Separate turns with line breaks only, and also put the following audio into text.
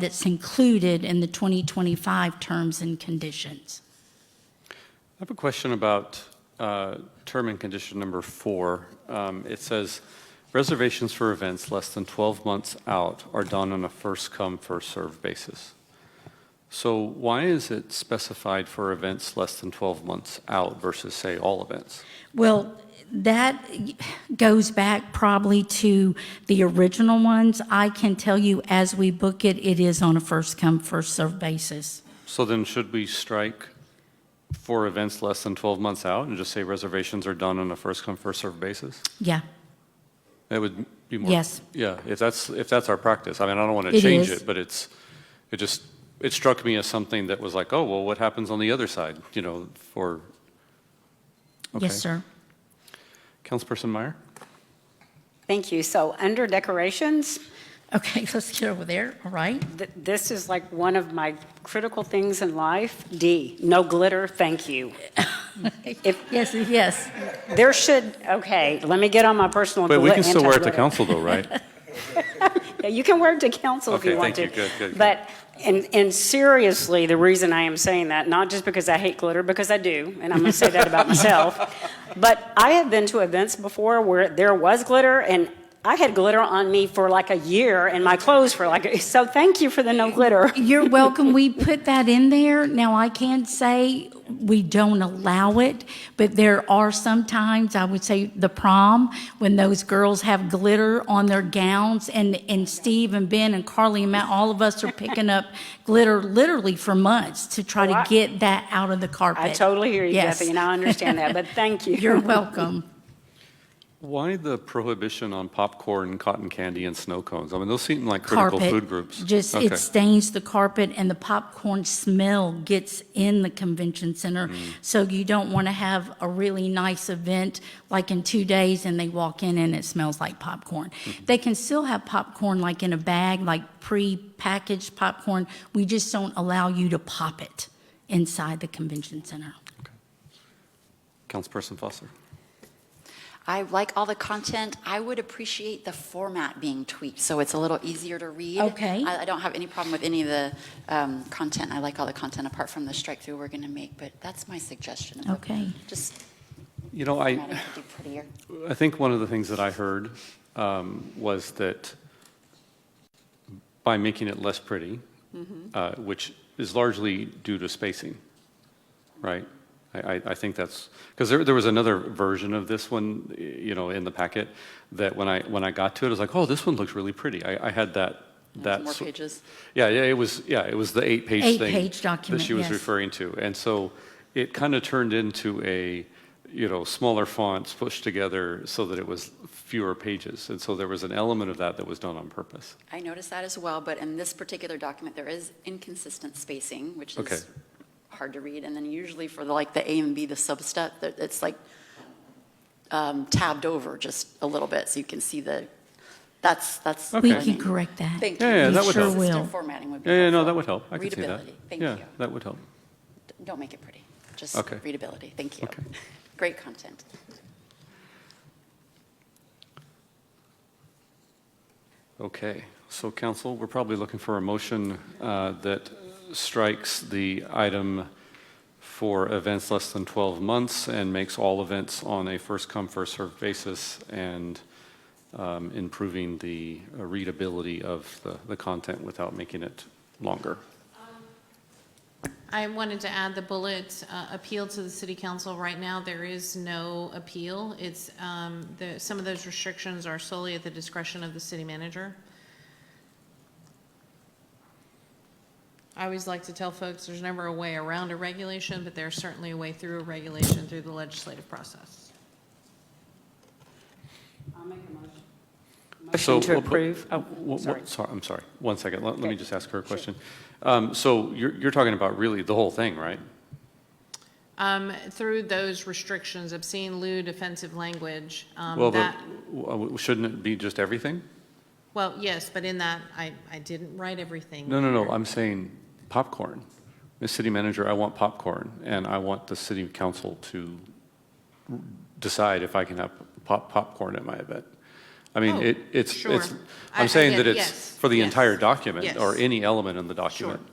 that's included in the 2025 terms and conditions.
I have a question about uh, term and condition number four. Um, It says, "Reservations for events less than 12 months out are done on a first-come, first-served basis." So why is it specified for events less than 12 months out versus, say, all events?
Well, that goes back probably to the original ones. I can tell you, as we book it, it is on a first-come, first-served basis.
So then should we strike for events less than 12 months out and just say reservations are done on a first-come, first-served basis?
Yeah,
That would be more.
Yes.
Yeah, if that's, if that's our practice, I mean, I don't want to
It
change
is.
it, but it's, it just, it struck me as something that was like, oh, well, what happens on the other side, you know, for, Okay.
yes, sir.
Councilperson Meyer?
Thank you. So under decorations,
Okay, let's get over there, all right?
th- this is like one of my critical things in life. D, no glitter, thank you. If-
Yes, yes.
There should, okay, let me get on my personal.
But we
glit-
can still wear it to
anti-glitter.
council though, right?
Yeah, You can wear it to council if
Okay,
you want to.
thank you. Good, good, good.
But, and, and seriously, the reason I am saying that, not just because I hate glitter, because I do, and I'm going to say that about myself, but I have been to events before where there was glitter, and I had glitter on me for like a year, and my clothes for like, a- so thank you for the no glitter.
You're welcome. We put that in there. Now, I can say we don't allow it, but there are sometimes, I would say, the prom, when those girls have glitter on their gowns, and, and Steve and Ben and Carly and Matt, all of us are picking up glitter literally for months to try
Oh,
to
I-
get that out of the carpet.
I totally hear you,
Yes.
Kathy, and I understand that, but thank you.
You're welcome.
Why the prohibition on popcorn, cotton candy, and snow cones? I mean, those seem like critical
carpet,
food groups.
Just,
Okay.
it stains the carpet and the popcorn smell gets in the convention center.
Mm.
So you don't want to have a really nice event, like in two days, and they walk in and it smells like popcorn.
Mm-hmm.
They can still have popcorn like in a bag, like pre-packaged popcorn. We just don't allow you to pop it inside the convention center.
Councilperson Foster?
I like all the content. I would appreciate the format being tweaked, so it's a little easier to read.
Okay.
I, I don't have any problem with any of the um, content. I like all the content, apart from the strike-through we're going to make, but that's my suggestion.
Okay.
Just,
You know,
I
I,
could do prettier.
I think one of the things that I heard um, was that by making it less pretty, uh, which is largely due to spacing, right? I, I- I think that's, because there, there was another version of this one, y- you know, in the packet, that when I, when I got to it, I was like, oh, this one looks really pretty. I, I had that, that.
More
sor-
pages.
yeah, yeah, it was, yeah, it was the eight-page thing.
Eight-page
That
document,
she was
yes.
referring to. And so it kind of turned into a, you know, smaller fonts pushed together so that it was fewer pages. And so there was an element of that that was done on purpose.
I noticed that as well, but in this particular document, there is inconsistent spacing, which
Okay.
is hard to read, and then usually for the, like the A and B, the substep, that- it's like um, tabbed over just a little bit, so you can see the, that's, that's.
We
Okay.
can correct that.
Thank you.
Yeah, yeah,
that would help.
Consistent
Sure will.
Formatting would be
Yeah, yeah, no,
helpful.
that would help. I could see that.
Readability, thank
Yeah,
you.
that would help.
Don't make it pretty, just
Okay.
readability, thank you.
Okay.
Great content.
Okay, so council, we're probably looking for a motion uh, that strikes the item for events less than 12 months and makes all events on a first-come, first-served basis and um, improving the uh, readability of the- the content without making it longer.
I wanted to add the bullet, uh, appeal to the city council. Right now, there is no appeal. It's, um, the, some of those restrictions are solely at the discretion of the city manager. I always like to tell folks, there's never a way around a regulation, but there's certainly a way through a regulation through the legislative process.
So,
to
well, but-
approve. Oh,
w- w-
sorry.
Sorry, I'm sorry. One second. Let let me
Okay.
just ask her a question. Um, So you're you're talking about really the whole thing, right?
Um, through those restrictions, obscene, lewd, offensive language,
Well,
um,
but
that,
w- w- shouldn't it be just everything?
well, yes, but in that, I, I didn't write everything.
No, no, no, I'm saying popcorn. Ms. City Manager, I want popcorn, and I want the city council to decide if I can have pop, popcorn at my event. I mean,
Oh,
it, it's, it's,
sure. I- I
I'm saying
get
that
it,
it's
yes,
for the
yes,
entire document or
yes.
any element in the document.